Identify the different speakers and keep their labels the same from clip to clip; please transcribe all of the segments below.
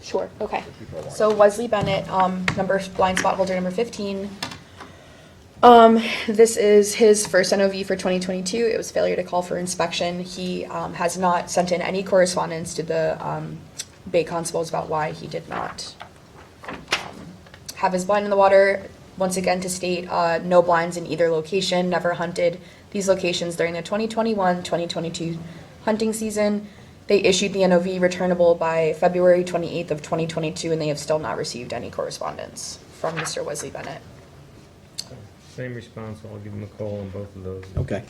Speaker 1: Sure, okay.
Speaker 2: people are
Speaker 1: So Wesley Bennett, um, number, blind spot holder number fifteen. Um, this is his first NOV for twenty twenty-two. It was failure to call for inspection. He, um, has not sent in any correspondence to the, um, Bay Constables about why he did not have his blind in the water. Once again, to state, uh, no blinds in either location, never hunted these locations during the 2021, 2022 hunting season. They issued the NOV returnable by February 28th of 2022, and they have still not received any correspondence from Mr. Wesley Bennett.
Speaker 3: Same response, I'll give him a call on both of those.
Speaker 2: Okay.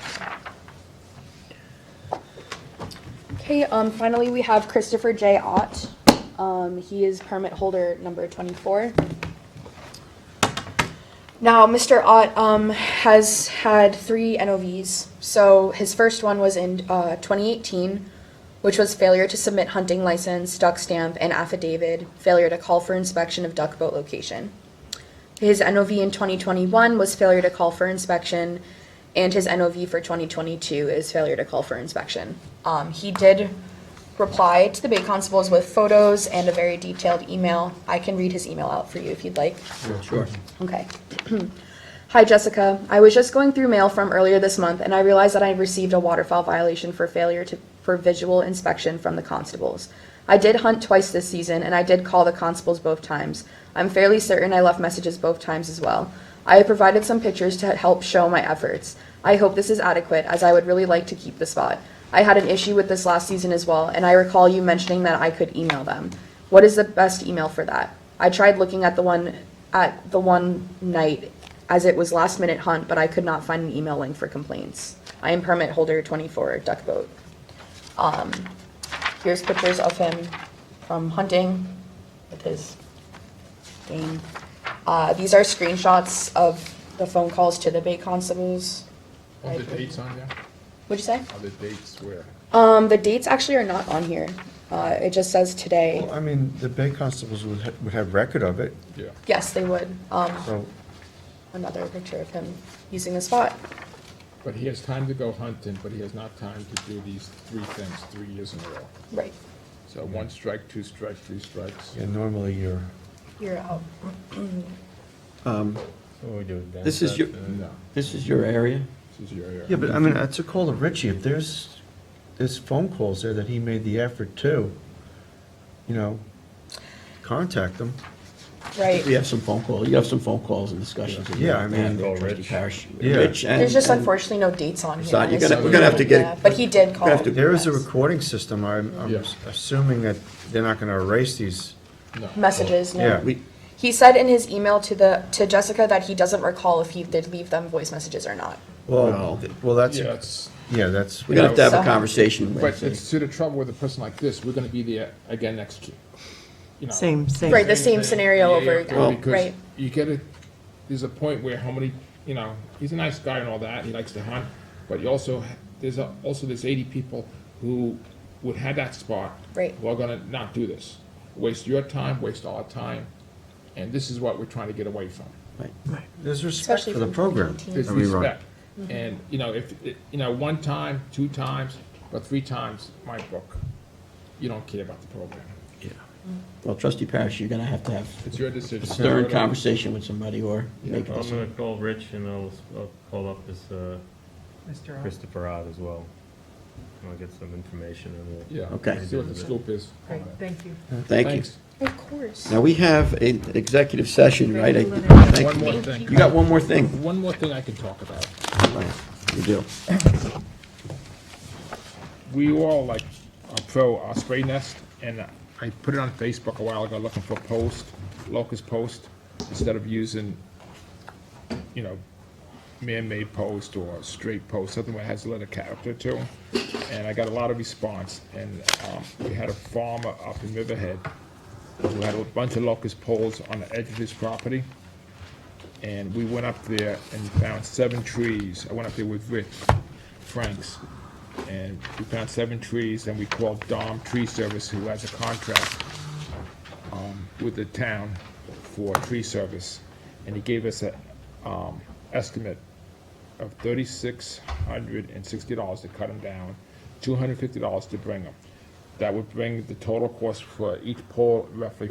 Speaker 1: Okay, um, finally, we have Christopher J. Ott. Um, he is permit holder number twenty-four. Now, Mr. Ott, um, has had three NOVs. So his first one was in, uh, twenty eighteen, which was failure to submit hunting license, duck stamp, and affidavit, failure to call for inspection of duck boat location. His NOV in 2021 was failure to call for inspection, and his NOV for 2022 is failure to call for inspection. Um, he did reply to the Bay Constables with photos and a very detailed email. I can read his email out for you if you'd like.
Speaker 2: Sure.
Speaker 1: Okay. Hi, Jessica. I was just going through mail from earlier this month, and I realized that I received a waterfowl violation for failure to, for visual inspection from the constables. I did hunt twice this season, and I did call the constables both times. I'm fairly certain I left messages both times as well. I have provided some pictures to help show my efforts. I hope this is adequate, as I would really like to keep the spot. I had an issue with this last season as well, and I recall you mentioning that I could email them. What is the best email for that? I tried looking at the one at the one night as it was last minute hunt, but I could not find an email link for complaints. I am permit holder twenty-four duck boat. Um, here's pictures of him from hunting with his thing. Uh, these are screenshots of the phone calls to the Bay Constables.
Speaker 4: Are the dates on there?
Speaker 1: What'd you say?
Speaker 4: Are the dates where?
Speaker 1: Um, the dates actually are not on here. Uh, it just says today.
Speaker 5: Well, I mean, the Bay Constables would, ha- would have record of it,
Speaker 4: Yeah.
Speaker 1: Yes, they would. Um,
Speaker 5: so,
Speaker 1: another picture of him using the spot.
Speaker 4: But he has time to go hunting, but he has not time to do these three things three years in a row.
Speaker 1: Right.
Speaker 4: So one strike, two strikes, three strikes.
Speaker 5: yeah, normally you're,
Speaker 1: You're out.
Speaker 3: What do we do with that?
Speaker 2: This is your,
Speaker 4: Uh, No,
Speaker 2: this is your area?
Speaker 4: this is your area.
Speaker 5: yeah, but I mean, it's a call to Richie, if there's, there's phone calls there that he made the effort to, you know, contact them.
Speaker 1: Right.
Speaker 2: We have some phone calls, you have some phone calls and discussions. that you
Speaker 5: Yeah, I
Speaker 2: have to have
Speaker 5: mean-
Speaker 2: with
Speaker 3: Call
Speaker 2: Trustee
Speaker 3: Rich.
Speaker 2: Parish.
Speaker 5: Yeah.
Speaker 2: Rich and.
Speaker 1: There's just
Speaker 2: and-
Speaker 1: unfortunately no dates on here.
Speaker 2: So you're
Speaker 4: gonna- we're gonna have to
Speaker 2: get-
Speaker 1: Yeah, But he did call.
Speaker 2: have to-
Speaker 5: There is a recording system, I'm, I'm
Speaker 4: Yes.
Speaker 5: assuming that they're not gonna erase these.
Speaker 4: No. Oh,
Speaker 1: Messages, no.
Speaker 5: Yeah.
Speaker 2: We,
Speaker 1: He said in his email to the, to Jessica that he doesn't recall if he did leave them voice messages or not.
Speaker 2: Well,
Speaker 5: Well, th- well, that's,
Speaker 4: Yeah, it's,
Speaker 5: yeah, that's,
Speaker 2: we're gonna have to have a
Speaker 1: So-
Speaker 2: conversation
Speaker 4: but
Speaker 2: with.
Speaker 4: it's to the trouble with a person like this, we're gonna be there again next, you know.
Speaker 6: Same, same.
Speaker 1: Right, the same scenario
Speaker 4: Yeah,
Speaker 1: over
Speaker 4: yeah,
Speaker 1: again,
Speaker 4: because
Speaker 1: right?
Speaker 4: You get it, there's a point where how many, you know, he's a nice guy and all that, he likes to hunt, but you also, ha- there's a- also there's eighty people who would have that spot.
Speaker 1: Right.
Speaker 4: Who are gonna not do this, waste your time, waste our time, and this is what we're trying to get away from.
Speaker 1: Mm-hmm.
Speaker 2: Right.
Speaker 5: there's respect
Speaker 1: Especially
Speaker 5: for the
Speaker 1: from
Speaker 5: program.
Speaker 1: 2018.
Speaker 4: There's
Speaker 5: Are we right?
Speaker 4: respect,
Speaker 1: Mm-hmm.
Speaker 4: and, you know, if, it- you know, one time, two times, but three times, my book, you don't care about the program,
Speaker 2: Well, trustee Parish, you're gonna have to have
Speaker 4: it's your decision.
Speaker 2: a stern conversation with somebody or make a
Speaker 3: I'm gonna
Speaker 2: decision.
Speaker 3: call Rich and I'll, I'll call up this, uh,
Speaker 6: Mr. Ott.
Speaker 3: Christopher Odd as well. And I'll get some information and we'll.
Speaker 4: Yeah.
Speaker 2: Okay.
Speaker 4: See what the scoop is. on
Speaker 6: Great,
Speaker 4: that.
Speaker 6: thank you.
Speaker 2: Thank you.
Speaker 4: Thanks.
Speaker 1: Of course.
Speaker 2: Now, we have an executive session, right? I- thank
Speaker 4: One
Speaker 2: you.
Speaker 4: more thing.
Speaker 2: You got one more thing?
Speaker 4: One more thing I can talk about.
Speaker 2: You do.
Speaker 4: We all like uh, are pro Osprey Nest, and I put it on Facebook a while ago looking for post, locust post, instead of using, you know, man-made post or straight post, something that has a little character to it. And I got a lot of response, and um, we had a farmer up in Riverhead who had a bunch of locust poles on the edge of his property. And we went up there and found seven trees. I went up there with Rich Franks. And we found seven trees and we called Dom Tree Service, who has a contract um, with the town for tree service. And he gave us an estimate of thirty-six hundred and sixty dollars to cut them down, two hundred and fifty dollars to bring them. That would bring the total cost for each pole roughly